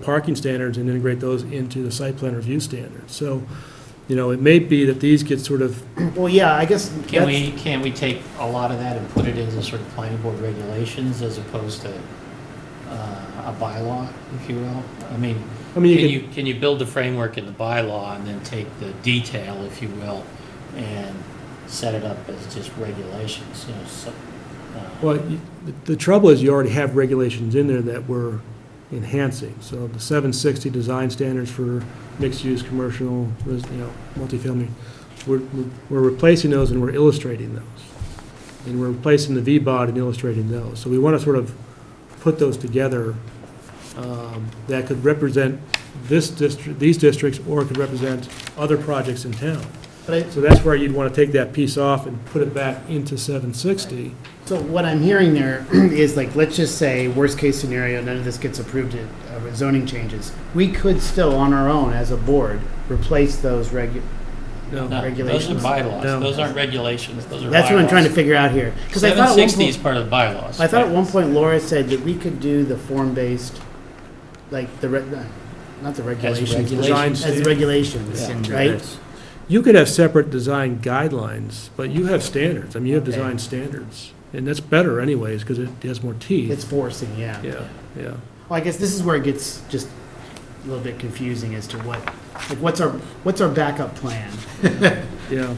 parking standards and integrate those into the site plan review standards. So, you know, it may be that these get sort of, Well, yeah, I guess that's- Can we, can we take a lot of that and put it into sort of planning board regulations as opposed to uh, a bylaw, if you will? I mean, I can mean, you you, can you build the framework in the bylaw and then take the detail, if you will, and set it up as just regulations, you know, so. could, uh, well, you- the trouble is you already have regulations in there that we're enhancing. So the 760 design standards for mixed-use, commercial, res- you know, multifamily, we're, we're replacing those and we're illustrating those. And we're replacing the V-bod and illustrating those. So we want to sort of put those together um, that could represent this district, these districts, or could represent other projects in town. but I- So that's where you'd want to take that piece off and put it back into 760. so what I'm hearing there is like, let's just say, worst case scenario, none of this gets approved at uh, zoning changes. We could still, on our own, as a board, replace those regu, no, No, regulations. Those are bylaws, No. those aren't regulations, those are bylaws. that's what I'm trying to figure out here. Because I thought at one 760 is point, part of the bylaws. I thought at right? one point Laura said that we could do the form-based, like the, re- uh, not the regulations, but regulations. as regulations, Yeah. right? You could have separate design guidelines, but you have standards. I mean, you have Okay. design standards. And that's better anyways, because it has more teeth. It's forcing, yeah. Yeah, yeah. Well, I guess this is where it gets just a little bit confusing as to what, like, what's our, what's our backup plan? Yeah.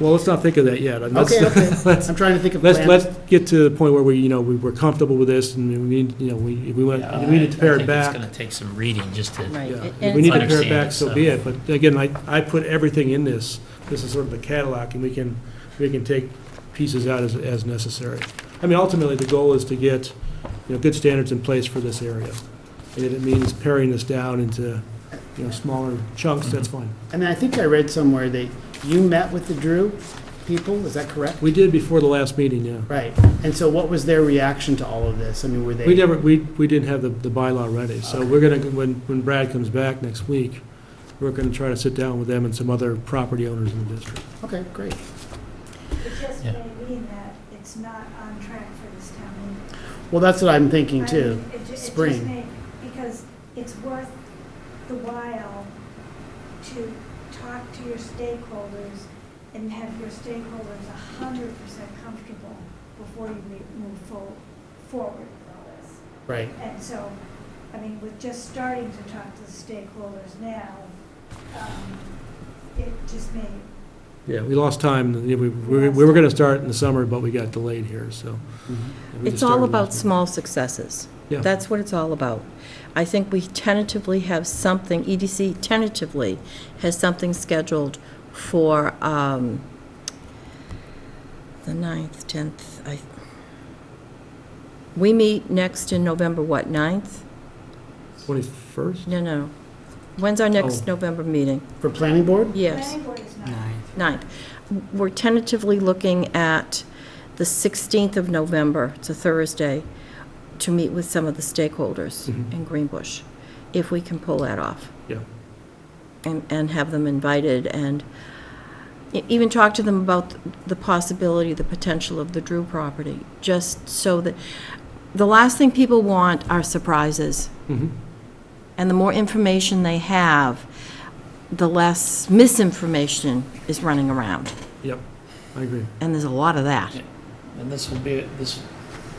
Well, let's not think of that yet. I mean, let's- Okay, okay, I'm trying to think of Let's, plans. let's get to the point where we, you know, we- we're comfortable with this, and we need, you know, we, we want, Yeah, we need to I- pare it I think it's back. going to take some reading just to. Right. Yeah. And If we need to pare it Understand back, it, so so- be it, but again, I, I put everything in this, this is sort of the catalog, and we can, we can take pieces out as, as necessary. I mean, ultimately, the goal is to get, you know, good standards in place for this area, and if it means paring this down into, you know, smaller chunks, that's Mm-hmm. fine. And I think I read somewhere that you met with the Drew people, is that correct? We did before the last meeting, yeah. Right, and so what was their reaction to all of this? I mean, were they? We never, we, we didn't have the, the bylaw ready, so we're gonna, when, when Brad comes back next week, we're gonna try to sit down with them and some other property owners in the district. Okay, great. It just Yeah. may mean that it's not on track for this town meeting. Well, that's what I'm I thinking too. mean, it ju- it just spring. may- Because it's worth the while to talk to your stakeholders and have your stakeholders a hundred percent comfortable before you re- move fo- forward with all this. Right, And so, I mean, with just starting to talk to the stakeholders now, um, it just may Yeah, we lost time, we, we were- we were gonna start in the summer, but we got delayed here, so. Mm-hmm. we just It's all started about last small successes. Yeah. That's what it's all about. I think we tentatively have something, EDC tentatively has something scheduled for um, the 9th, 10th. I- We meet next in November, what, 9th? week. Twenty-first? No, no. When's our Oh. next November meeting? for planning board? Yes, Planning board is not. ninth. We're tentatively looking at the 16th of November, it's a Thursday, to meet with some of the stakeholders Mhm. in Greenbush, if we can pull that off. Yeah. And, and have them invited and e- even talk to them about the possibility, the potential of the Drew property, just so that, the last thing people want are surprises. Mhm. And the more information they have, the less misinformation is running around. Yep, I agree. And there's a lot of that. Yeah. And this will be, this,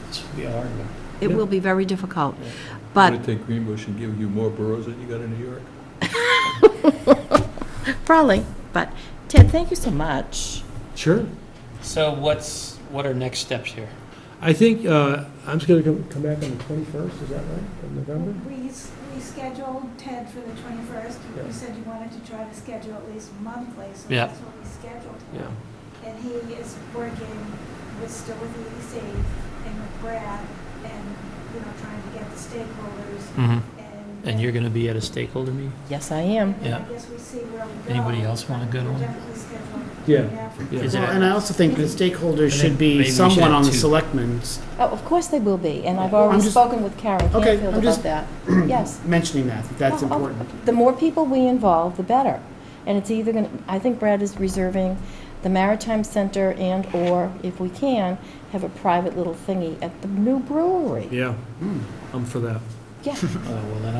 this will be a hard one. It will be very difficult. But Would it take Greenbush and give you more boroughs than you got in New York? probably, but Ted, thank you so much. Sure. So what's, what are next steps here? I think, uh, I'm just gonna come, come back on the twenty-first, is that right, of November? We, s- we scheduled Ted for the 21st. Yeah. You said you wanted to try to schedule at least monthly, so Yeah. that's what we scheduled. Yeah. And he is working with, still with the EDC and with Brad and, you know, trying to get the stakeholders and. Mm-hmm. And you're going to be at a stakeholder meeting? Yes, I am. And then I Yeah. guess we see where we go. Anybody else want to go to We're one? Definitely scheduled. Yeah. now for- Yeah. Is Well, it- and I also think the I stakeholders think should be maybe we should someone have on the two. selectmen's Oh, of course they will be, and I've already I'm just- spoken with Karen Okay, Canfield I'm just- about that. Yes. mentioning that, that that's Oh, oh, important. The more people we involve, the better. And it's either going, to I think Brad is reserving the Maritime Center and/or, if we can, have a private little thingy at the new brewery. Hmm. Yeah, I'm for that. Yeah. Oh, well, then